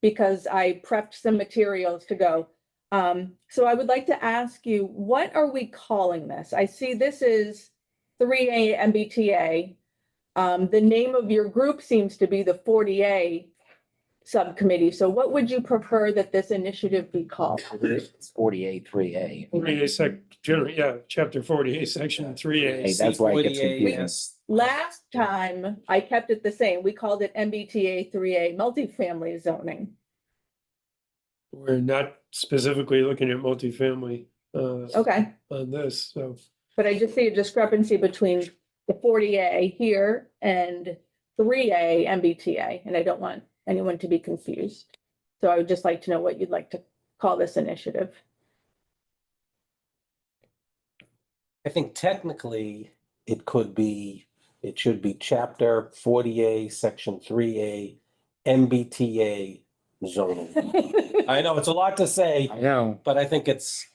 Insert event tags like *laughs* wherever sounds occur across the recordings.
because I prepped some materials to go. Um, so I would like to ask you, what are we calling this? I see this is three A MBTA. Um, the name of your group seems to be the forty A subcommittee. So what would you prefer that this initiative be called? It's forty-eight, three A. Forty-eight sec, generally, yeah, chapter forty-eight, section three A. Hey, that's why it gets 48, confusing. yes. Last time I kept it the same. We called it MBTA three A multifamily zoning. We're not specifically looking at multifamily uh Okay. on this, so. But I just see a discrepancy between the forty A here and three A MBTA, and I don't want anyone to be confused. So I would just like to know what you'd like to call this initiative. I think technically, it could be, it should be chapter forty A, section three A, MBTA *laughs* zoning. I know it's a lot to say, I know. but I think it's,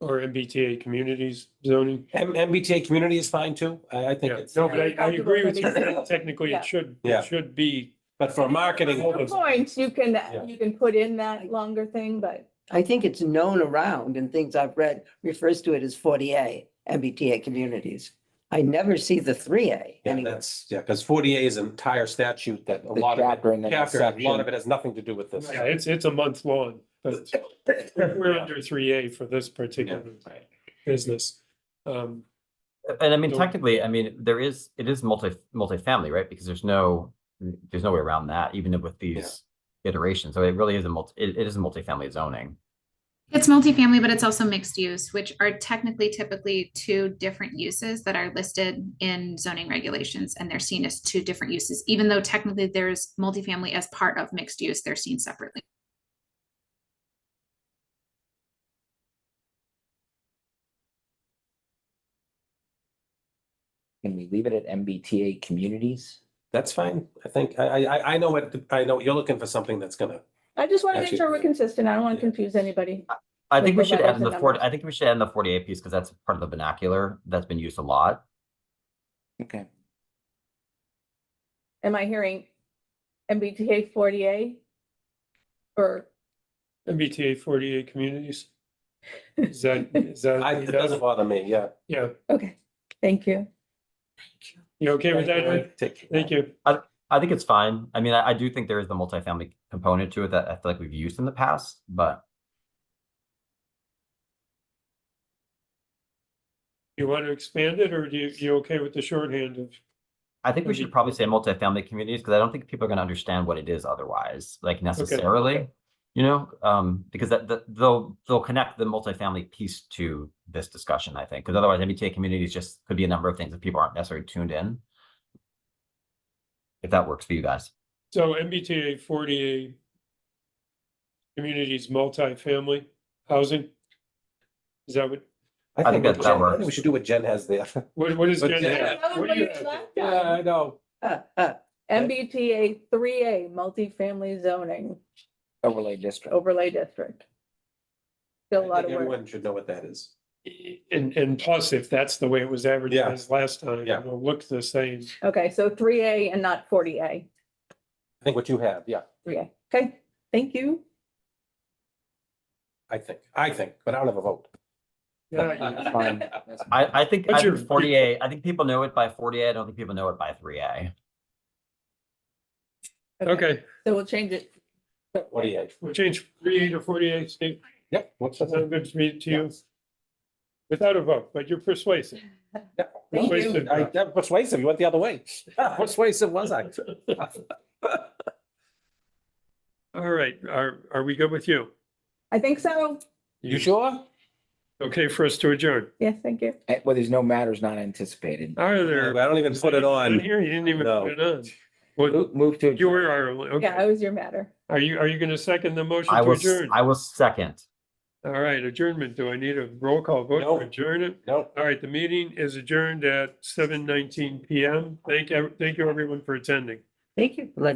Or MBTA communities zoning. M- MBTA community is fine too. I, I think Yeah, it's, no, but I I agree with you. Comfortable. Technically, Yeah. it should, Yeah. it should be, but for *laughs* marketing, Hold on. Points, you Yeah. can, you can put in that longer thing, but I think it's known around and things I've read refers to it as forty A, MBTA communities. I never see the three A yeah, anywhere. that's, yeah, because forty A is an entire statute that a The lot of chapter and then it, chapter, a lot of section. it has nothing to do with this. yeah, it's, it's a month long, *laughs* but we're under three A for this particular business. Um, And I mean, So- technically, I mean, there is, it is multi, multifamily, right? Because there's no, there's no way around that, even with these iterations. So it really is a multi, it, it is a multifamily zoning. It's multifamily, but it's also mixed use, which are technically typically two different uses that are listed in zoning regulations, and they're seen as two different uses, even though technically there's multifamily as part of mixed use, they're seen separately. Can we leave it at MBTA communities? That's fine. I think, I, I, I- I know what, I know, you're looking for something that's gonna, I just want to make Actually- sure we're consistent. I don't want to Yeah. confuse anybody. I Like think we the should letters add in the and forty, numbers. I think we should add in the forty-eight piece because that's part of the vernacular that's been used a lot. Okay. Am I hearing MBTA forty A? Or, MBTA forty-eight communities. Is that, is that? I, it doesn't bother me, yeah. Yeah, okay, thank you. you okay with that? Ed? Take- Thank you. I think it's fine. I mean, I, I do think there is the multifamily component to it that I feel like we've used in the past, but You want to expand it or do you, you okay with the shorthand of? I think we should Maybe- probably say multifamily communities because I don't think people are going to understand what it is otherwise, like necessarily. You know, um, because that, that they'll they'll connect the multifamily piece to this discussion, I think, because otherwise MBTA communities just could be a number of things that people aren't necessarily tuned in. If that works for you guys, So MBTA forty-eight communities multifamily housing? Is that what, I think what that- that Jen- I think We works. should do what Jen has there. *laughs* what, what is? But Jen Jen- have? That was What what do you you have? left Yeah, out. I know. Uh, uh, MBTA three A multifamily zoning Overlay Oh, district. overlay district. Still a I lot think of work. Everyone should know what that is. And, and plus, if that's the way it was advertised last time, Yeah. it'll look the same. Okay, so three A and not forty A. I think what you have, yeah, Three A. Okay, thank you. I think, I think, but I don't have a vote. Yeah, That's fine. That's fine. I I think What's I your- think forty A. I think people know it by forty A. I don't think people know it by three A. *laughs* Okay, So we'll change it. What do you have? we'll change forty-eight to forty-eight, Steve. Yep, what's That that? sound good to me to you? Without a vote, but you're persuasive. *laughs* Thank you. Persuasive. I, that persuasive, you went the other way. *laughs* Persuasive was I? All right, are, are we good with you? I think so. You sure? Okay for us to adjourn? Yes, thank you. Eh, Well, there's no matters not anticipated. Are I there? don't even put it on. Here, you didn't even No. put it on. Well, Mo- Move to. you were, our- okay. Yeah, it was your matter. Are you, are you going to second the motion I to was adjourn? I was second. All right, adjournment. Do I need a roll call vote No. to adjourn it? No, All right, the meeting is adjourned at seven nineteen PM. Thank, ev- thank you everyone for attending. Thank you for letting